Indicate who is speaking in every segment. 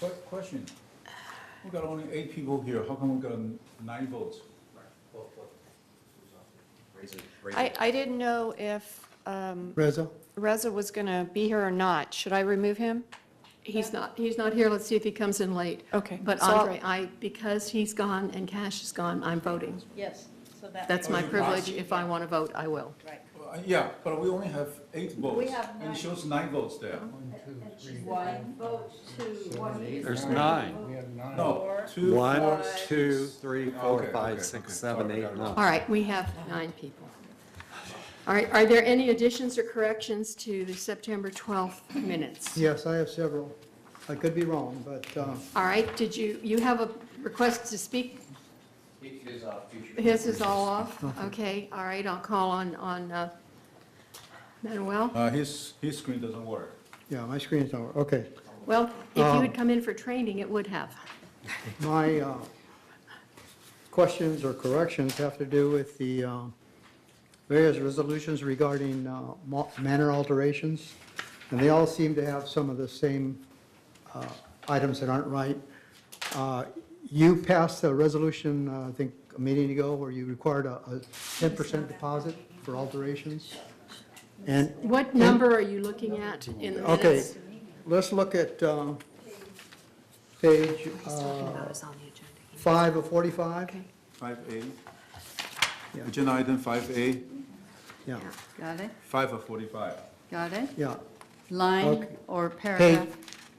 Speaker 1: Que- Question. We've got only eight people here. How come we got nine votes?
Speaker 2: I, I didn't know if um,
Speaker 3: Reza?
Speaker 2: Reza was going to be here or not. Should I remove him?
Speaker 4: He's not, he's not here, let's see if he comes in late.
Speaker 2: Okay.
Speaker 4: But
Speaker 2: So I'll-
Speaker 4: Andre, I, because he's gone and Cash is gone, I'm voting.
Speaker 5: Yes, so that.
Speaker 4: That's my
Speaker 1: Oh, you
Speaker 4: privilege,
Speaker 1: must.
Speaker 4: if I want to vote, I will.
Speaker 5: Right.
Speaker 1: Uh, Yeah, but we only have eight votes.
Speaker 5: have
Speaker 1: And
Speaker 5: nine.
Speaker 1: it shows nine votes there.
Speaker 5: One vote, two, one.
Speaker 6: There's nine.
Speaker 3: We have nine.
Speaker 1: No,
Speaker 5: Four.
Speaker 1: two,
Speaker 6: One,
Speaker 1: four,
Speaker 6: two, three, four,
Speaker 1: Okay, okay,
Speaker 6: five, six,
Speaker 1: okay.
Speaker 6: seven,
Speaker 1: Sorry,
Speaker 6: eight,
Speaker 1: got it.
Speaker 6: nine.
Speaker 4: All right, we have nine people. All right, are there any additions or corrections to the September 12th minutes?
Speaker 3: Yes, I have several. I could be wrong, but uh,
Speaker 4: All right, did you, you have a request to speak? His is all off? Okay, all right, I'll call on, on uh, Manuel.
Speaker 1: Uh, his, his screen doesn't work.
Speaker 3: yeah, my screen's over. Okay.
Speaker 4: Well, if you
Speaker 3: Um,
Speaker 4: had come in for training, it would have.
Speaker 3: My uh, questions or corrections have to do with the uh, various resolutions regarding uh, mo- manor alterations, and they all seem to have some of the same uh, items that aren't right. Uh, You passed a resolution, uh, I think, a meeting ago, where you required a a 10% deposit for alterations, and
Speaker 4: What number are you looking at in the
Speaker 3: Okay,
Speaker 4: minutes?
Speaker 3: let's look at uh, page uh, five of 45.
Speaker 4: Okay,
Speaker 1: Five A.
Speaker 3: Yeah.
Speaker 1: Agenda item five A,
Speaker 3: Yeah,
Speaker 5: Got it,
Speaker 1: five of forty-five.
Speaker 5: got it?
Speaker 3: yeah.
Speaker 5: Line
Speaker 3: Okay.
Speaker 5: or
Speaker 3: Page,
Speaker 5: paragraph?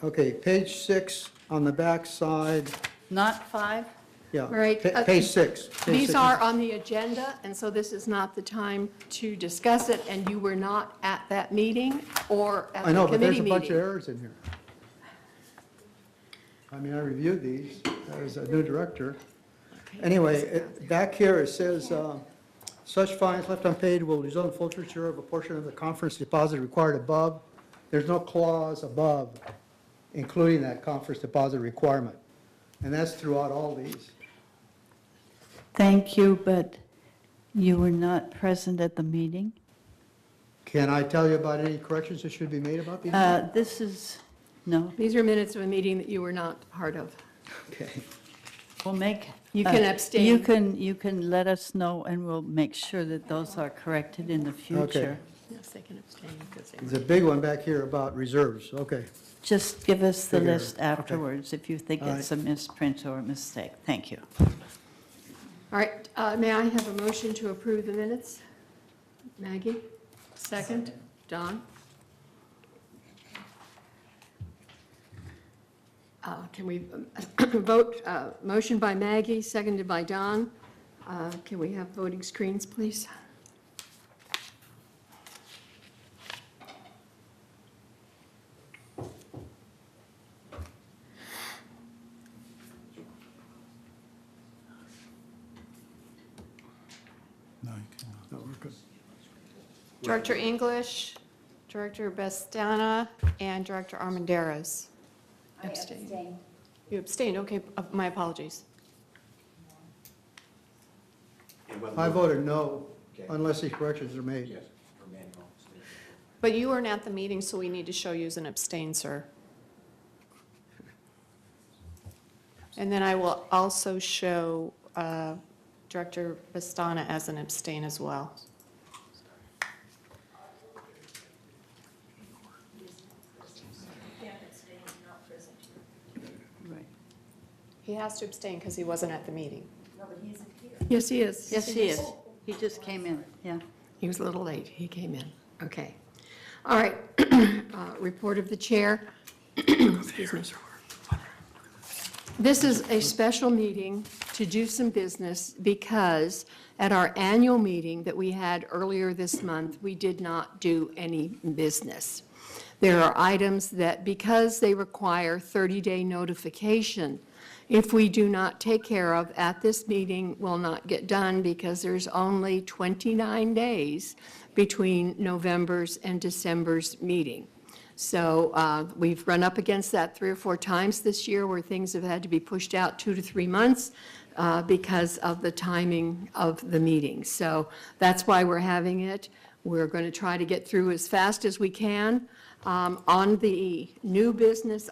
Speaker 3: okay, page six on the back side,
Speaker 5: Not five?
Speaker 3: yeah.
Speaker 4: All right,
Speaker 3: pa-
Speaker 4: uh,
Speaker 3: Page six. page
Speaker 4: These
Speaker 3: six.
Speaker 4: are on the agenda, and so this is not the time to discuss it, and you were not at that meeting or at
Speaker 3: I
Speaker 4: the
Speaker 3: know, but there's
Speaker 4: committee
Speaker 3: a bunch of
Speaker 4: meeting.
Speaker 3: errors in here. I mean, I reviewed these as a new director.
Speaker 4: Okay.
Speaker 3: Anyway, it- back here, it says, uh, such fines left unpaid will result in forfeiture of a portion of the conference deposit required above. There's no clause above including that conference deposit requirement. And that's throughout all these.
Speaker 7: Thank you, but you were not present at the meeting.
Speaker 3: Can I tell you about any corrections that should be made about these?
Speaker 7: Uh, This is, no,
Speaker 4: These are minutes of a meeting that you were not part of.
Speaker 3: Okay.
Speaker 7: we'll make.
Speaker 4: You can
Speaker 7: uh,
Speaker 4: abstain.
Speaker 7: You can, you can let us know, and we'll make sure that those are corrected in the future.
Speaker 4: Yes, they can abstain because they
Speaker 3: There's
Speaker 4: were.
Speaker 3: a big one back here about reserves, okay.
Speaker 7: Just give us the
Speaker 3: Figure,
Speaker 7: list
Speaker 3: okay.
Speaker 7: afterwards if you think
Speaker 3: All right.
Speaker 7: it's a misprint or a mistake. Thank you.
Speaker 4: All right, uh, may I have a motion to approve the minutes? Maggie? Second? Don? Uh, Can we um, vote, uh, motion by Maggie, seconded by Don. Uh, Can we have voting screens, please?
Speaker 1: No, you cannot.
Speaker 3: No, we're good.
Speaker 2: Director English, Director Bestana, and Director Armandares.
Speaker 5: I
Speaker 2: Abstain. You abstained, okay, uh, my apologies.
Speaker 3: I voted no unless these corrections are made.
Speaker 2: But you weren't at the meeting, so we need to show you as an abstain, sir. And then I will also show uh, Director Bastana as an abstain as well.
Speaker 7: Right.
Speaker 2: He has to abstain because he wasn't at the meeting.
Speaker 4: Yes, he is.
Speaker 7: Yes, he is. He just came in, yeah.
Speaker 4: He was a little late, he came in. Okay. All right, Uh, report of the chair. Excuse me. This is a special meeting to do some business because at our annual meeting that we had earlier this month, we did not do any business. There are items that, because they require 30-day notification, if we do not take care of at this meeting, will not get done because there's only 29 days between November's and December's meeting. So uh, we've run up against that three or four times this year where things have had to be pushed out two to three months uh, because of the timing of the meeting. So that's why we're having it. We're going to try to get through as fast as we can. Um, On the new business